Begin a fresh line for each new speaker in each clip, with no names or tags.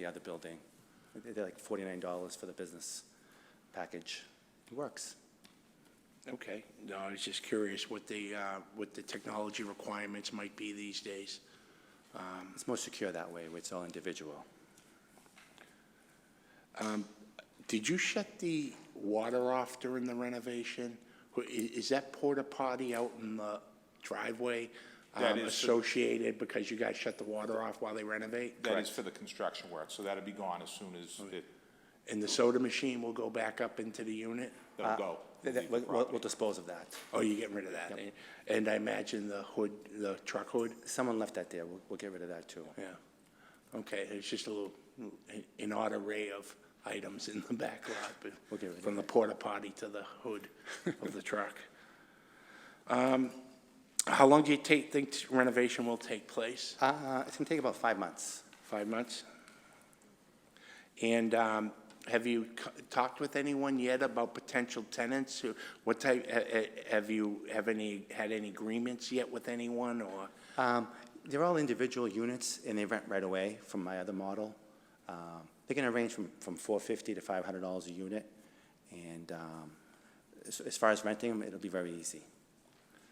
the other building. They- They're like forty-nine dollars for the business package. It works.
Okay, no, I was just curious what the, uh, what the technology requirements might be these days.
It's more secure that way, where it's all individual.
Did you shut the water off during the renovation? Wh- i- Is that porta potty out in the driveway um,
That is the-
associated because you guys shut the water off while they renovate?
That is for the construction work, so that'll be gone as soon as it,
And the soda machine will go back up into the unit?
that'll go.
Th- th- We'll
leave the
we'll-
property.
we'll dispose of that.
Oh, you're getting rid of that? And I imagine the hood, the truck hood?
Someone left that there. We'll, we'll get rid of that too.
Yeah. Okay, it's just a little, an odd array of items in the back lot, but
We'll get rid of
from the porta potty to the hood of the truck. Um, How long do you take, think renovation will take place?
Uh, it's gonna take about five months.
Five months? And um, have you co- talked with anyone yet about potential tenants? who What type, ha- ha- have you, have any, had any agreements yet with anyone, or?
Um, they're all individual units and they rent right away from my other model. Um, they can range from, from four fifty to five hundred dollars a unit. And, um, as, as far as renting them, it'll be very easy.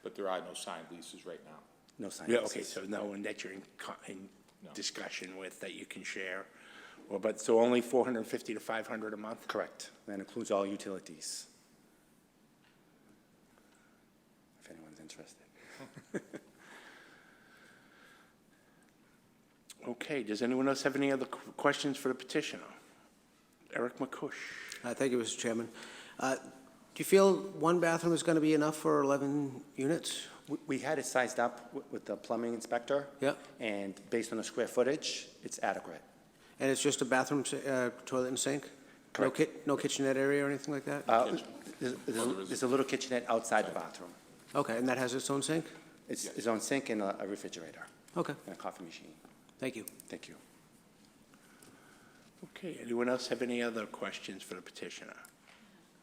But there are no signed leases right now.
No sign.
Yeah, okay,
leases.
so no one that you're in, co- in
No.
discussion with that you can share? Well, but, so only four hundred and fifty to five hundred a month?
Correct. That includes all utilities. If anyone's interested.
Okay, does anyone else have any other qu- questions for the petitioner? Eric McCush?
Uh, Thank you, Mr. Chairman. Uh, Do you feel one bathroom is going to be enough for 11 units?
We- We had it sized up wi- with the plumbing inspector.
Yeah.
And based on the square footage, it's adequate.
And it's just a bathroom, si- uh, toilet and sink? No
Correct.
kit, no kitchenette area or anything like that?
Uh, There's there's- there's a little kitchenette outside the bathroom.
Okay, and that has its own sink?
It's its own sink and a a refrigerator
Okay,
and a coffee machine.
thank you.
Thank you.
Okay, anyone else have any other questions for the petitioner?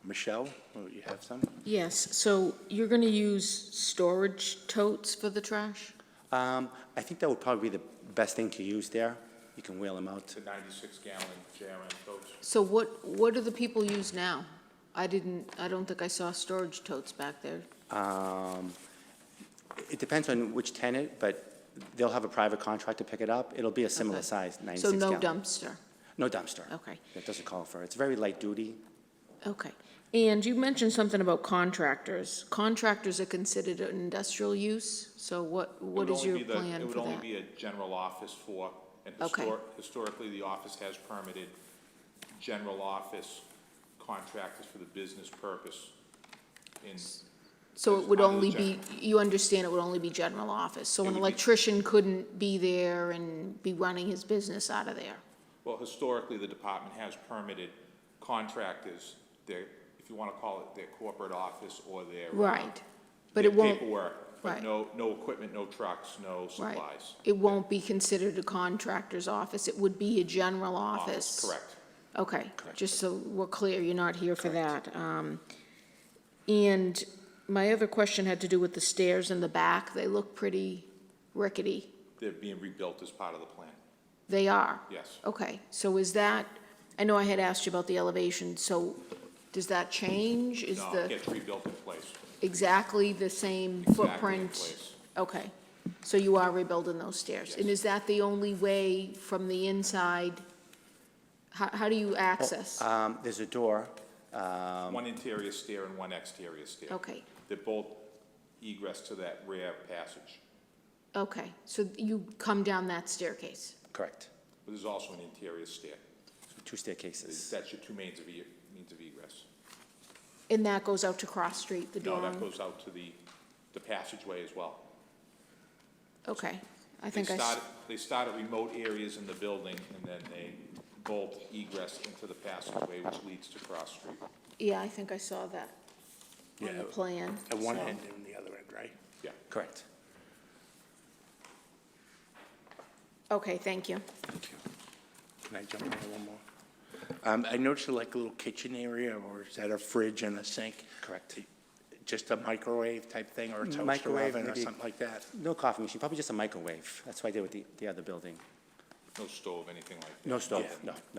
Michelle, oh, you have some?
Yes, so you're going to use storage totes for the trash?
Um, I think that would probably be the best thing to use there. You can wheel them out.
It's a 96-gallon JRM coach.
So what, what do the people use now? I didn't, I don't think I saw storage totes back there.
Um, It depends on which tenant, but they'll have a private contract to pick it up. It'll be a similar
Okay.
size, 96
So
gallon.
no dumpster?
No dumpster.
Okay.
That doesn't call for it. It's very light duty.
Okay. And you mentioned something about contractors. Contractors are considered an industrial use, so what,
It
what
would
is
only
your
be the-
plan
It would
for
only
that?
be a general office for, and
Okay.
histor- historically, the office has permitted general office contractors for the business purpose in,
So it would
under the
only be, you understand it would only be general office? So
It
an
would be-
electrician couldn't be there and be running his business out of there?
well, historically, the department has permitted contractors, their, if you want to call it their corporate office or their. uh,
Right. But
their
it won't.
Paperwork,
right.
but no, no equipment, no trucks, no
Right.
supplies.
It won't be considered a contractor's office, it would be a general office?
Correct.
Okay, just so we're clear, you're not here for that. Um, And my other question had to do with the stairs in the back, they look pretty rickety.
They're being rebuilt as part of the plan,
They are?
yes.
Okay, so is that, I know I had asked you about the elevation, so does that change? Is
No, it
the,
gets rebuilt in place.
exactly the same
Exactly in
footprint?
place.
Okay, so you are rebuilding those stairs? And
Yes.
is that the only way from the inside? How, how do you access?
Um, There's a door.
One interior stair and one exterior stair.
Okay,
They're both egress to that rear passage,
okay, so you come down that staircase?
Correct.
but there's also an interior stair.
Two staircases.
That's your two means of, e- means of egress.
And that goes out to Cross Street, the
No,
dorm?
that goes out to the, the passageway as well.
Okay, I
They
think I, s-
started- They start at remote areas in the building, and then they bolt egress into the passageway, which leads to Cross Street.
yeah, I think I saw that on
Yeah,
the plan.
At one
so-
end and the other end, right?
Yeah.
Correct.
Okay, thank you.
Thank you. Can I jump in there one more? Um, I noticed like a little kitchen area, or is that a fridge and a sink?
Correct.
Just a microwave type thing, or a toaster
Microwave,
oven, or
maybe.
something like that?
No coffee machine, probably just a microwave. That's what I did with the, the other building.
no stove, anything like that?
No stove, no, no.